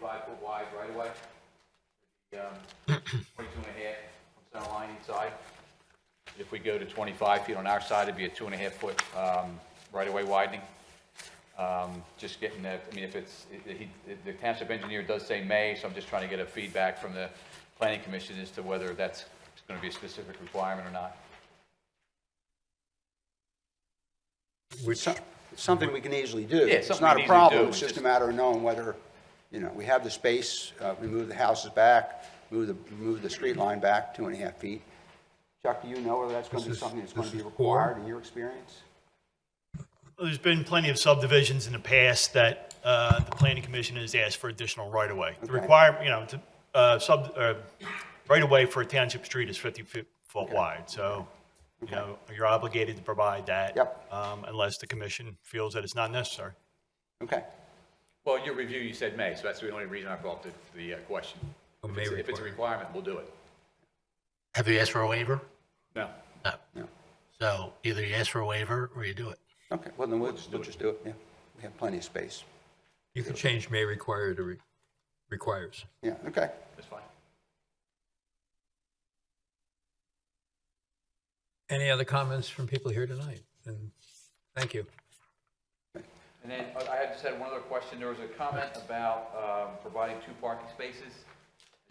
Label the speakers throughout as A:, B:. A: five foot wide right away. Um, twenty-two and a half from center line each side. If we go to twenty-five feet on our side, it'd be a two and a half foot, um, right away widening. Um, just getting that, I mean, if it's, it- it- he, the township engineer does say May, so I'm just trying to get a feedback from the planning commission as to whether that's gonna be a specific requirement or not.
B: It's some- it's Something we can easily do.
A: Yeah,
B: It's
A: something
B: not
A: we
B: a
A: can easily do,
B: problem, it's
A: it's
B: just a
A: just-
B: matter of knowing whether, you know, we have the space, uh, we move the houses back, move the, move the street line back two and a half feet. Chuck, do you know whether that's going to be
C: This is-
B: something that's going
C: this
B: to be
C: is four.
B: required in your experience?
D: Well, There's been plenty of subdivisions in the past that uh, the planning commission has asked for additional right-of-way. The
B: Okay.
D: require, you know, to, uh, sub, uh, right-of-way for a township street is 50 foot foot wide, so, you know, you're obligated to provide that.
B: Yep.
D: um, Unless the commission feels that it's not necessary.
B: Okay,
A: Well, in your review, you said May, so that's the only reason I brought the, the uh, question.
C: A
A: If
C: May
A: it's- If it's a requirement, we'll do it.
E: Have you asked for a waiver?
A: No.
E: No.
B: No.
E: So either you ask for a waiver or you do it.
B: okay, well, then we'll, we'll just do it, yeah. We have plenty of space.
C: You can change may require to re- requires.
B: Yeah, okay.
A: That's fine.
C: Any other comments from people here tonight? And thank you.
A: And then uh, I had just had one other question. There was a comment about um, providing two parking spaces.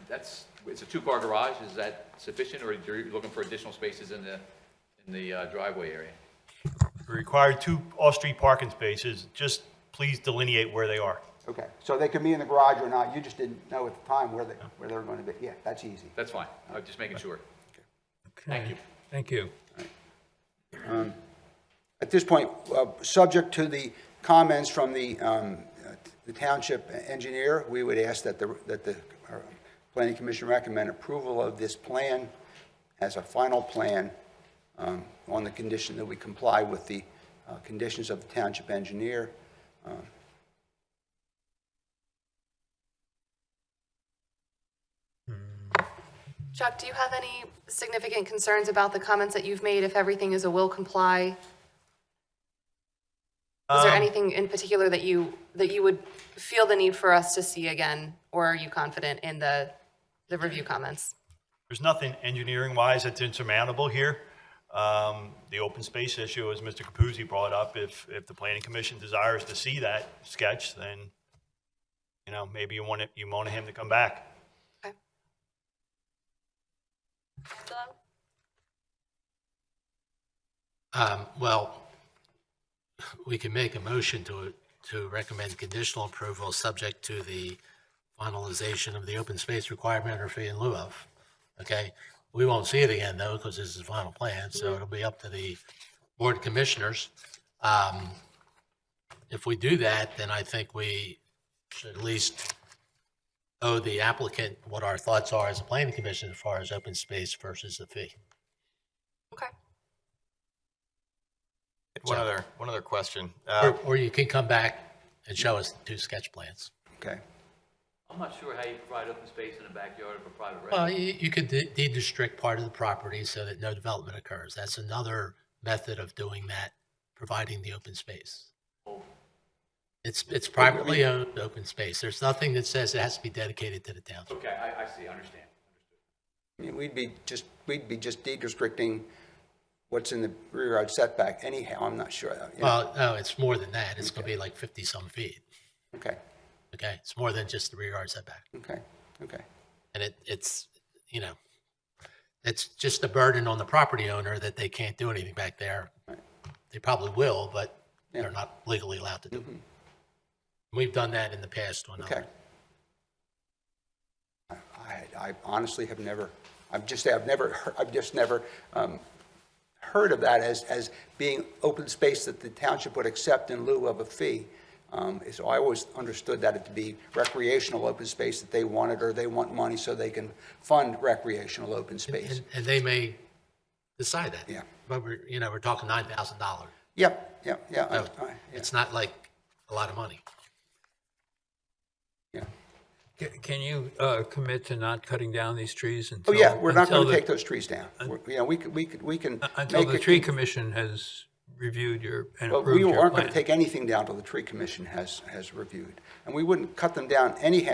A: That's, it's a two-car garage. Is that sufficient, or are you looking for additional spaces in the, in the uh, driveway area?
D: We Require two off-street parking spaces, just please delineate where they are.
B: Okay, so they could be in the garage or not, you just didn't know at the time where they, where they were going to be. Yeah, that's easy.
A: That's fine. I'm just making sure.
C: Thank
A: you.
C: Thank you.
B: At this point, uh, subject to the comments from the um, uh, the township engineer, we would ask that the, that the uh, planning commission recommend approval of this plan as a final plan um, on the condition that we comply with the uh, conditions of the township engineer. Um,
F: Chuck, do you have any significant concerns about the comments that you've made if everything is a will comply? Is there
D: Um,
F: anything in particular that you, that you would feel the need for us to see again? Or are you confident in the, the review comments?
D: There's nothing engineering-wise that's insurmountable here. Um, The open space issue, as Mr. Capuzzi brought up, if, if the planning commission desires to see that sketch, then, you know, maybe you want it, you want him to come back.
F: Okay. Dylan?
E: Um, Well, we can make a motion to, to recommend conditional approval, subject to the finalization of the open space requirement or fee in lieu of. Okay? We won't see it again, though, because this is the final plan, so it'll be up to the board of commissioners. Um, If we do that, then I think we should at least owe the applicant what our thoughts are as a planning commission as far as open space versus the fee.
F: Okay.
G: One other, one other question. Uh,
E: Or, or you can come back and show us two sketch plans.
B: Okay,
A: I'm not sure how you provide open space in the backyard of a private
E: Well, you, you could de- de-restrict part of the property so that no development occurs. That's another method of doing that, providing the open space. It's, it's privately owned open space. There's nothing that says it has to be dedicated to the township.
A: Okay, I, I see, I understand.
B: I mean, we'd be just, we'd be just de-restricting what's in the rear yard setback anyhow, I'm not sure. uh, Yeah,
E: Well, no, it's more than that. It's gonna be like fifty-some feet,
B: Okay,
E: okay? It's more than just the rear yard setback.
B: okay, okay.
E: And it, it's, you know, it's just a burden on the property owner that they can't do anything back there. They probably will, but
B: Yeah. Mm-hmm.
E: they're not legally allowed to do it. We've done that in the past on
B: Okay.
E: other.
B: I, I honestly have never, I've just, I've never, heard- I've just never um, heard of that as, as being open space that the township would accept in lieu of a fee. Um, So I always understood that it to be recreational open space that they wanted, or they want money so they can fund recreational open space.
E: And, and they may decide that.
B: Yeah.
E: But we're, you know, we're talking nine thousand dollars.
B: Yep, yep, yeah, I- I- yeah,
E: It's not like a lot of money.
B: yeah.
C: C- Can you uh, commit to not cutting down these trees
B: Oh,
C: until?
B: yeah, we're not
C: until
B: going to
C: the-
B: take those trees down. We're- You know, we could, we could, we can.
C: Until
B: make
C: the
B: it-
C: tree commission has reviewed your and
B: But
C: approved
B: we
C: your
B: aren't going to
C: plan.
B: take anything down till the tree commission has, has reviewed. And we wouldn't cut them down anyhow